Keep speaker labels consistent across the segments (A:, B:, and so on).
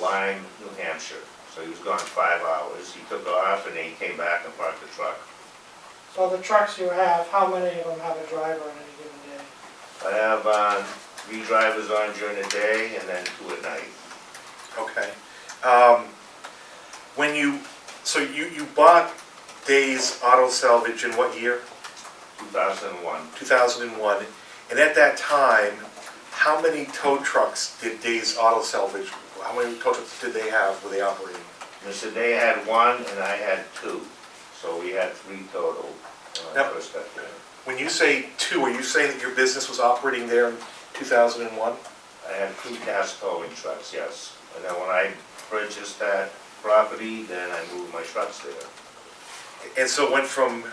A: Lyme, New Hampshire. So he was gone five hours. He took off and then he came back and parked the truck.
B: So the trucks you have, how many of them have a driver on any given day?
A: I have, um, three drivers on during the day and then two at night.
C: Okay. Um, When you, so you, you bought Days Auto Salvage in what year?
A: Two thousand and one.
C: 2001. And at that time, how many tow trucks did Days Auto Salvage, how many tow trucks did they have, were they operating?
A: Mr. Day had one and I had two. So we had three total when I
C: Yep.
A: first got there.
C: When you say two, are you saying that your business was operating there in 2001?
A: I had two gas towing trucks, yes. And then when I purchased that property, then I moved my trucks there.
C: And so it went from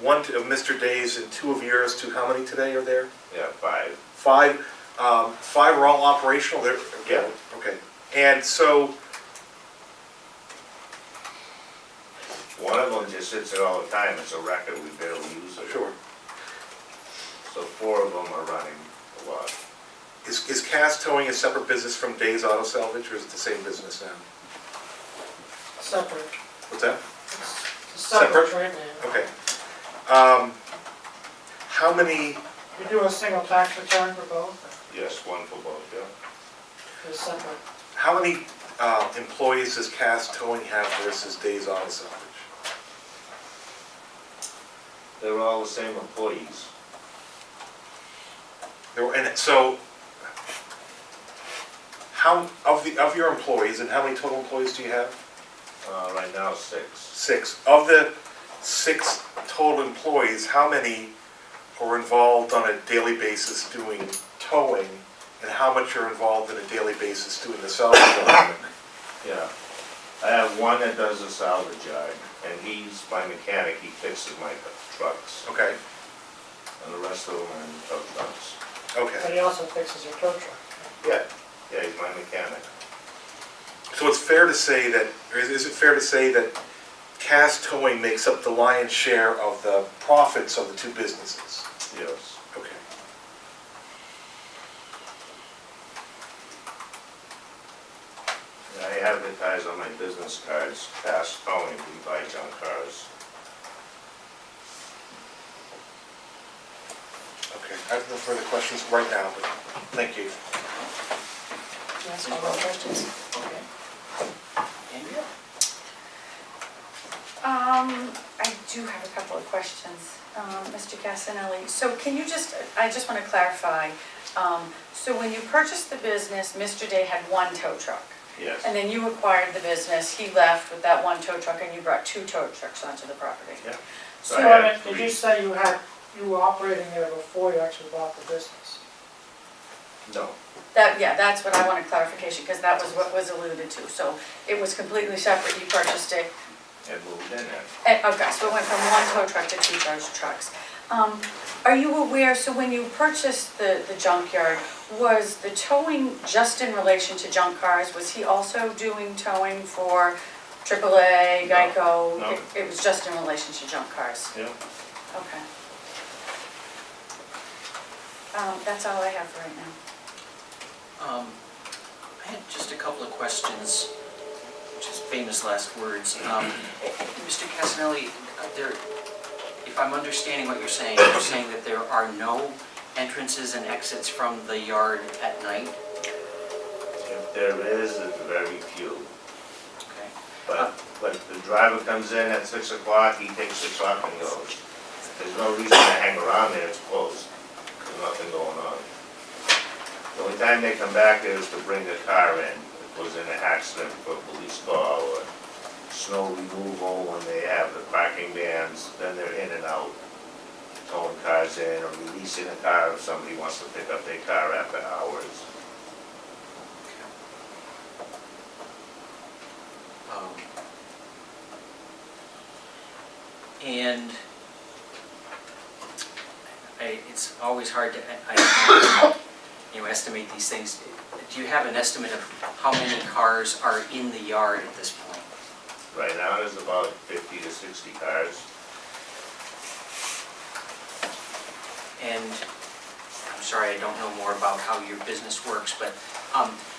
C: one to- of Mr. Days and two of yours to how many today are there?
A: Yeah, five.
C: Five, um, five are all operational there?
A: Yeah.
C: Okay. And so,
A: One of them just sits there all the time. It's a record. We barely use it.
C: sure,
A: So four of them are running a lot.
C: is, is Cass Towing a separate business from Days Auto Salvage or is it the same business now?
B: Separate,
C: What's that?
B: it's separate right now.
C: Okay. Um, How many,
B: You do a single tax return for both,
A: Yes, one for both, yeah.
B: or is it separate?
C: how many uh, employees does Cass Towing have versus Days Auto Salvage?
A: They're all the same employees.
C: There were- And so, how, of the, of your employees, and how many total employees do you have?
A: Uh, right now, six.
C: Six. Of the six total employees, how many are involved on a daily basis doing towing? And how much are involved on a daily basis doing the salvage? work?
A: Yeah. I have one that does the salvage yard, and he's my mechanic. He fixes my trucks,
C: Okay,
A: and the rest of them are in tow trucks.
B: But
C: okay.
B: he also fixes your tow truck.
A: Yeah. Yeah, he's my mechanic.
C: So it's fair to say that, or is- is it fair to say that Cass Towing makes up the lion's share of the profits of the two businesses?
A: Yes.
C: Okay.
A: And I advertise on my business cards, fast towing, we buy junk cars.
C: Okay, I have no further questions right now, but thank you.
D: Yes, all those questions? Okay. Andrea?
E: Um, I do have a couple of questions, um, Mr. Gassinelli. So can you just, I just want to clarify, um, so when you purchased the business, Mr. Day had one tow truck?
A: Yes.
E: And then you acquired the business, he left with that one tow truck, and you brought two tow trucks onto the property?
A: Yeah.
B: So,
A: I had
B: I mean, did
A: three.
B: you say you had, you were operating there before you actually bought the business?
A: No,
E: That, yeah, that's what I wanted clarification, because that was what was alluded to. So it was completely separate, you purchased it,
A: it moved in there.
E: Eh, Okay, so it went from one tow truck to two tow trucks. Um, Are you aware, so when you purchased the, the junkyard, was the towing just in relation to junk cars? Was he also doing towing for AAA,
A: No,
E: Geico?
A: no.
E: It- It was just in relation to junk cars?
A: Yeah.
E: Okay. Um, That's all I have for right now.
D: Um, I had just a couple of questions, which is famous last words. Um, Mr. Casanelli, uh, there, if I'm understanding what you're saying, you're saying that there are no entrances and exits from the yard at night?
A: If there is, it's very few.
D: Okay.
A: But, but the driver comes in at six o'clock, he takes the truck and goes. There's no reason to hang around there, it's closed, there's nothing going on. The only time they come back there is to bring the car in, if it was in an accident for a police call or snow removal when they have the parking bans, then they're in and out. Towing cars in or releasing a car if somebody wants to pick up their car after hours.
D: Um, And I, it's always hard to, I- I, you know, estimate these things. Do you have an estimate of how many cars are in the yard at this point?
A: Right now, there's about fifty to sixty cars.
D: And I'm sorry, I don't know more about how your business works, but um,